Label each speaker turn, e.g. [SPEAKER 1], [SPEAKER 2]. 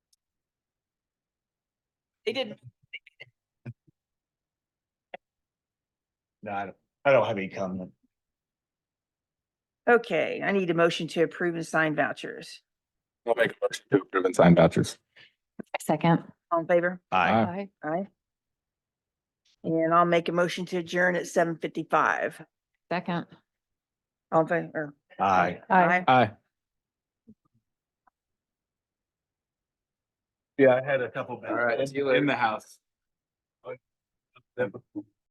[SPEAKER 1] They didn't.
[SPEAKER 2] No, I don't, I don't have any comment.
[SPEAKER 1] Okay, I need a motion to approve and sign vouchers.
[SPEAKER 3] I'll make a motion to approve and sign vouchers.
[SPEAKER 4] Second.
[SPEAKER 1] All in favor?
[SPEAKER 2] Aye.
[SPEAKER 4] Aye.
[SPEAKER 1] Aye. And I'll make a motion to adjourn at seven fifty-five.
[SPEAKER 4] Second.
[SPEAKER 1] All in favor?
[SPEAKER 2] Aye.
[SPEAKER 4] Aye.
[SPEAKER 3] Aye.
[SPEAKER 2] Yeah, I had a couple.
[SPEAKER 3] All right, in the house.